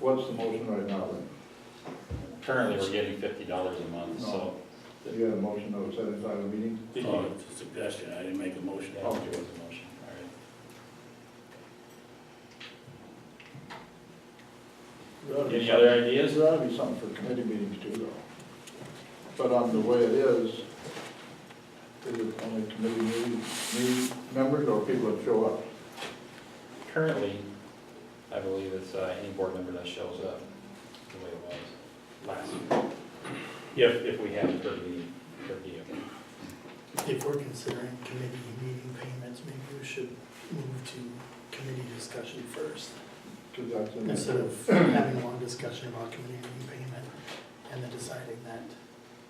What's the motion right now then? Currently, we're getting fifty dollars a month, so. Do you have a motion to set aside a meeting? Oh, Oh, it's a suggestion, I didn't make a motion. Yeah, there was a motion, all right. Any other ideas? There ought to be something for committee meetings too, though. But on the way it is, is it only committee meeting, meeting members or people that show up? Currently, I believe it's uh, any board member that shows up, the way it was last year. If, if we have per meeting, per diem. If we're considering committee meeting payments, maybe we should move to committee discussion first. 'Cause that's in there. Instead of having a long discussion about committee meeting payment and then deciding that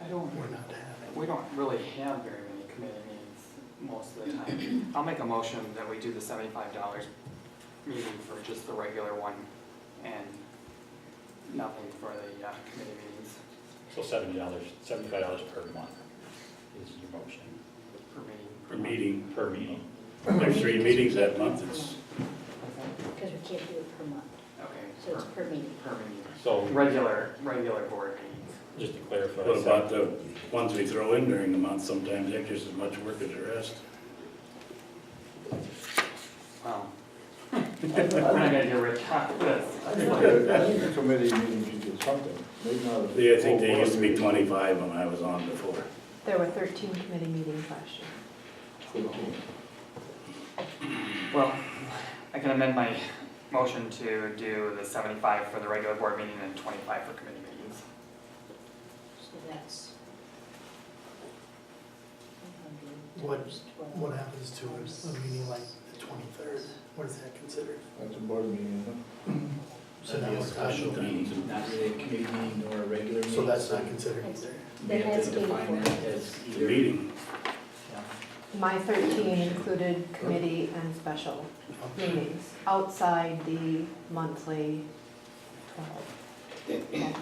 I don't, we're not having. we don't really have very many committee meetings most of the time. I'll make a motion that we do the seventy-five dollars meeting for just the regular one and nothing for the uh, committee meetings So seventy dollars, seventy-five dollars per month is your motion, for meeting. For meeting, per meeting. there's three meetings that month, it's, Because we can't do it per month, so it's Okay, per meeting. per, per meeting. So Regular, regular board meetings. just to clarify. what about the ones we throw in during the month, sometimes they're just as much work as the rest. Wow. We're Um, not gonna get rich off this. I think the- I think the committee meeting should get something, maybe not. a- They, I think they used to be twenty-five when I was on before. There were 13 committee meetings last year. Fifteen. Well, I can amend my motion to do the seventy-five for the regular board meeting and twenty-five for committee meetings. So that's. What- What 12. happens to a, a meeting like the twenty-third? What is that considered? That's a board meeting, isn't So now we're talking- meeting. Not really a committee meeting nor a regular meeting. So that's not considered either. We Then have that's to define 84. that as The either. meeting, Yeah. My 13 included committee and special meetings outside the monthly 12. it?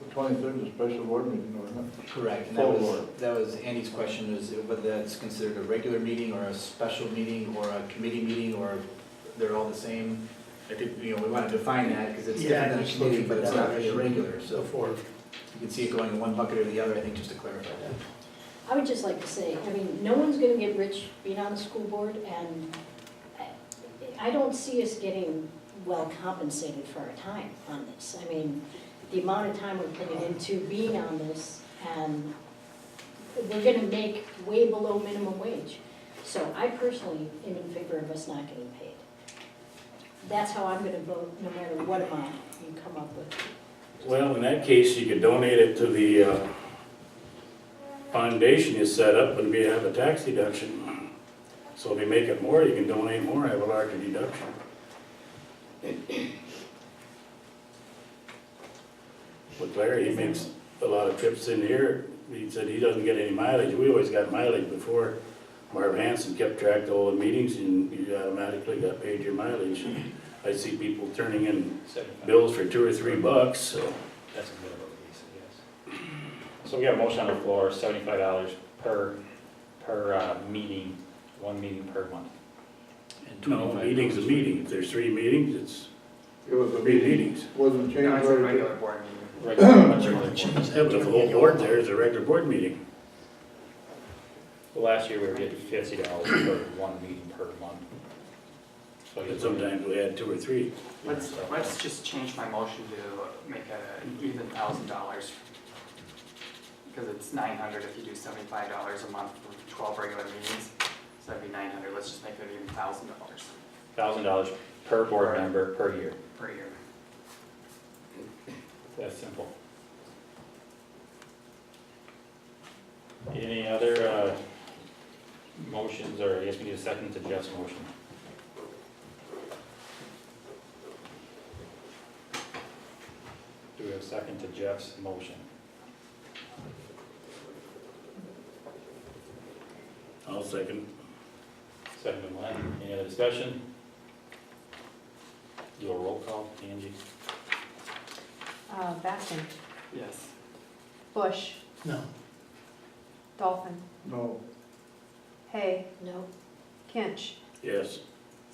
The twenty-third is a special board meeting, isn't it? Correct, and that was, Full board. that was Andy's question, is whether that's considered a regular meeting or a special meeting or a committee meeting or they're all the same. I think, you know, we want to define that because it's Yeah, different than a just committee, looking but for it's not really a definition. regular, So so for, you can see it going in one bucket or the other, I think, just to clarify that. I would just like to say, I mean, no one's gonna get rich being on the school board, and I, I don't see us getting well compensated for our time on this. I mean, the amount of time we're putting into being on this, and we're gonna make way below minimum wage. So I personally am in favor of us not getting paid. That's how I'm gonna vote, no matter what amount you come up with. well, in that case, you could donate it to the, uh, foundation you set up, and we have a tax deduction. So if you make it more, you can donate more, have a larger deduction. But Larry, he makes a lot of trips in here, he said he doesn't get any mileage, we always got mileage before. Marv Hanson kept track of all the meetings, and you automatically got paid your mileage. I see people turning in Seventy-five. bills for two or three bucks, so. That's a minimum lease, yes. So we got a motion on the floor, seventy-five dollars per, per uh, meeting, one meeting per month. No, meeting's a meeting, if there's three meetings, it's It was a three meeting, meetings. wasn't changed. No, it's a very- regular board meeting. Right, much more than one. But if the whole board there is a regular board meeting, Well, Last year, we were getting fifty dollars per one meeting per month. So you- but sometimes we had two or three. Let's, let's just change my motion to make a even thousand dollars. Because it's nine hundred if you do seventy-five dollars a month for twelve regular meetings, so that'd be nine hundred, let's just make it even thousand dollars Thousand dollars per board member per year, per year. that's simple. Any other uh, motions, or I guess we need a second to Jeff's motion? Do we have a second to Jeff's motion? I'll second. Second to Len, any other discussion? Do a roll call, Angie? Uh, Baskin, Yes. Bush, no, Dolphin, No, Hay, No, Kinch, Yes,